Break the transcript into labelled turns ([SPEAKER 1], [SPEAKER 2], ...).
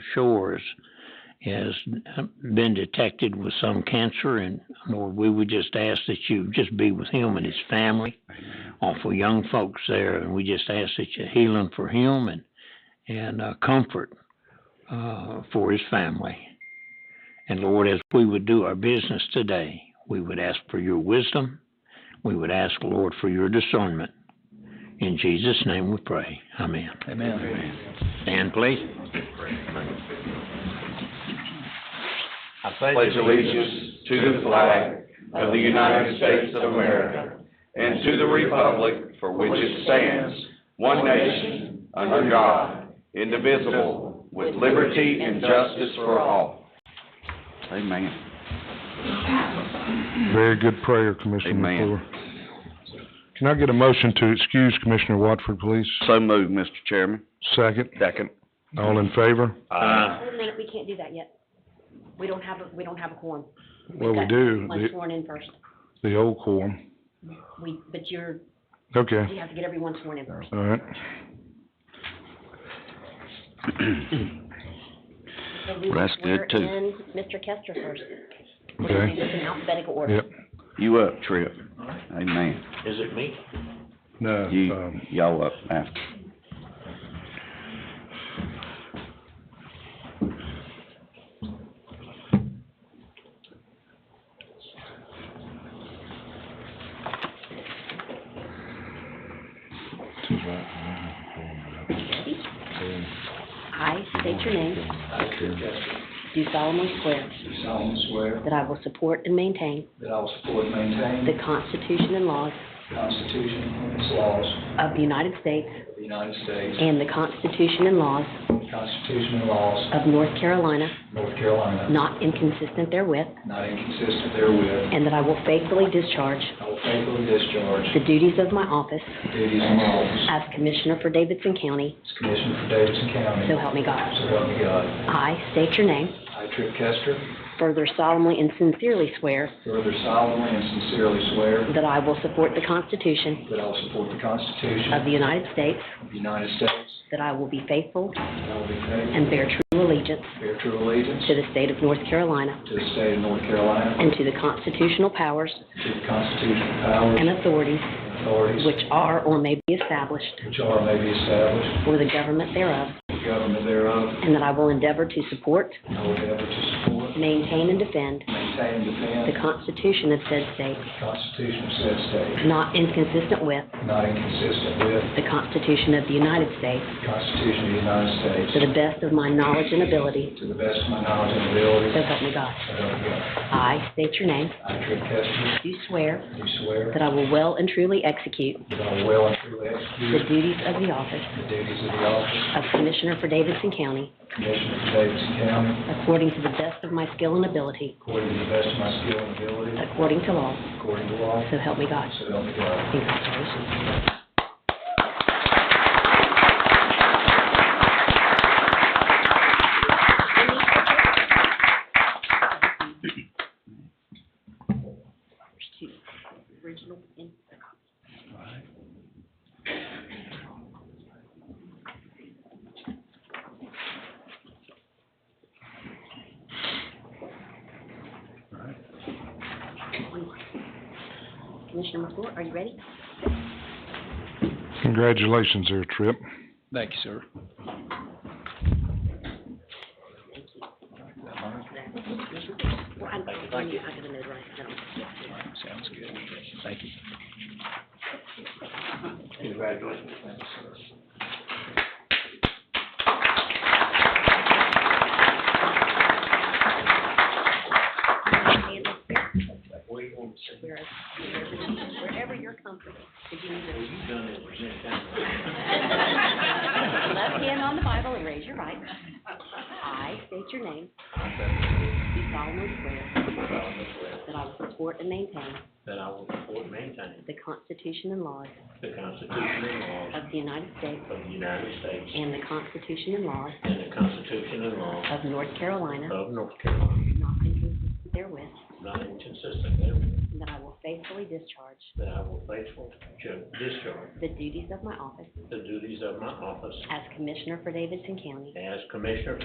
[SPEAKER 1] Shores has been detected with some cancer, and Lord, we would just ask that you just be with him and his family, awful young folks there, and we just ask that you heal him for him and and uh, comfort uh, for his family. And Lord, as we would do our business today, we would ask for your wisdom. We would ask, Lord, for your discernment. In Jesus' name we pray. Amen.
[SPEAKER 2] Amen.
[SPEAKER 1] Stand, please.
[SPEAKER 2] I
[SPEAKER 3] pledge allegiance to the flag of the United States of America and to the republic for which it stands, one nation, under God, indivisible, with liberty and justice for all. Amen.
[SPEAKER 4] Very good prayer, Commissioner
[SPEAKER 3] Amen.
[SPEAKER 4] McClure. Can I get a motion to excuse Commissioner Watford, please?
[SPEAKER 3] So moved, Mr. Chairman.
[SPEAKER 4] Second.
[SPEAKER 3] Second.
[SPEAKER 4] All in favor?
[SPEAKER 5] Wait a minute, we can't do that yet. We don't have, a we don't have a quorum.
[SPEAKER 4] Well, we
[SPEAKER 5] Okay,
[SPEAKER 4] do,
[SPEAKER 5] Let's
[SPEAKER 4] the,
[SPEAKER 5] sworn in first.
[SPEAKER 4] the old quorum.
[SPEAKER 5] We, but you're,
[SPEAKER 4] Okay,
[SPEAKER 5] you have to get everyone sworn in first.
[SPEAKER 4] all right.
[SPEAKER 5] So we will
[SPEAKER 3] Well, that's
[SPEAKER 5] swear
[SPEAKER 3] good, too.
[SPEAKER 5] in Mr. Kester first. We're gonna do
[SPEAKER 4] Okay,
[SPEAKER 5] this in alphabetical order.
[SPEAKER 4] yep.
[SPEAKER 3] You up, Tripp. Amen.
[SPEAKER 1] Is it me?
[SPEAKER 4] No,
[SPEAKER 3] You,
[SPEAKER 4] um,
[SPEAKER 3] y'all up after.
[SPEAKER 5] I state your name, do solemnly swear
[SPEAKER 2] Do solemnly swear
[SPEAKER 5] that I will support and maintain
[SPEAKER 2] that I will support and maintain
[SPEAKER 5] the Constitution and laws
[SPEAKER 2] the Constitution and its laws
[SPEAKER 5] of the United States
[SPEAKER 2] of the United States,
[SPEAKER 5] and the Constitution and laws
[SPEAKER 2] the Constitution and laws
[SPEAKER 5] of North Carolina,
[SPEAKER 2] of North Carolina,
[SPEAKER 5] not inconsistent therewith,
[SPEAKER 2] not inconsistent therewith.
[SPEAKER 5] and that I will faithfully discharge
[SPEAKER 2] I will faithfully discharge
[SPEAKER 5] the duties of my office
[SPEAKER 2] the duties and office
[SPEAKER 5] as Commissioner for Davidson County,
[SPEAKER 2] as Commissioner for Davidson County.
[SPEAKER 5] so help me God.
[SPEAKER 2] So help me God.
[SPEAKER 5] I state your name,
[SPEAKER 2] I, Tripp Kester,
[SPEAKER 5] further solemnly and sincerely swear
[SPEAKER 2] further solemnly and sincerely swear
[SPEAKER 5] that I will support the Constitution
[SPEAKER 2] that I will support the Constitution
[SPEAKER 5] of the United States,
[SPEAKER 2] of the United States,
[SPEAKER 5] that I will be faithful
[SPEAKER 2] that I will be faithful
[SPEAKER 5] and bear true allegiance
[SPEAKER 2] and bear true allegiance
[SPEAKER 5] to the state of North Carolina
[SPEAKER 2] to the state of North Carolina,
[SPEAKER 5] and to the constitutional powers
[SPEAKER 2] to the constitutional powers
[SPEAKER 5] and authorities
[SPEAKER 2] and authorities
[SPEAKER 5] which are or may be established
[SPEAKER 2] which are may be established
[SPEAKER 5] for the government thereof,
[SPEAKER 2] for the government thereof,
[SPEAKER 5] and that I will endeavor to support,
[SPEAKER 2] I will endeavor to support,
[SPEAKER 5] maintain, and defend
[SPEAKER 2] maintain, and
[SPEAKER 5] the
[SPEAKER 2] defend
[SPEAKER 5] Constitution of said state,
[SPEAKER 2] the Constitution of said state,
[SPEAKER 5] not inconsistent with
[SPEAKER 2] not inconsistent with
[SPEAKER 5] the Constitution of the United States,
[SPEAKER 2] the Constitution of the United
[SPEAKER 5] to
[SPEAKER 2] States,
[SPEAKER 5] the best of my knowledge and ability,
[SPEAKER 2] to the best of my knowledge and ability,
[SPEAKER 5] so help me God.
[SPEAKER 2] so help me God.
[SPEAKER 5] I state your name,
[SPEAKER 2] I, Tripp Kester,
[SPEAKER 5] do swear
[SPEAKER 2] do swear
[SPEAKER 5] that I will well and truly execute
[SPEAKER 2] that I will well and truly
[SPEAKER 5] the
[SPEAKER 2] execute
[SPEAKER 5] duties of the office
[SPEAKER 2] the duties of the
[SPEAKER 5] of
[SPEAKER 2] office
[SPEAKER 5] Commissioner for Davidson County
[SPEAKER 2] of Commissioner of Davidson County
[SPEAKER 5] according to the best of my skill and ability,
[SPEAKER 2] according to the best of my skill and ability,
[SPEAKER 5] according to law,
[SPEAKER 2] according to law,
[SPEAKER 5] so help me God.
[SPEAKER 2] so help me God.
[SPEAKER 5] Congratulations. Commissioner McClure, are you ready?
[SPEAKER 4] Congratulations there, Tripp.
[SPEAKER 2] Thank you, sir.
[SPEAKER 5] Well, I'm, I'm gonna notarize it.
[SPEAKER 2] Sounds good. Thank you.
[SPEAKER 5] Whereas- Wherever you're comfortable, if you need to. Left hand on the Bible and raise your right. I state your name. Do solemnly swear that I will support and maintain
[SPEAKER 1] That I will support and maintain
[SPEAKER 5] the Constitution and laws
[SPEAKER 1] the Constitution and laws
[SPEAKER 5] of the United States
[SPEAKER 1] of the United States
[SPEAKER 5] and the Constitution and laws
[SPEAKER 1] and the Constitution and laws
[SPEAKER 5] of North Carolina,
[SPEAKER 1] of North Carolina,
[SPEAKER 5] not inconsistent therewith,
[SPEAKER 1] not inconsistent therewith,
[SPEAKER 5] and that I will faithfully discharge
[SPEAKER 1] that I will faithfully ju- discharge
[SPEAKER 5] the duties of my office
[SPEAKER 1] the duties of my office
[SPEAKER 5] as Commissioner for Davidson County
[SPEAKER 1] as Commissioner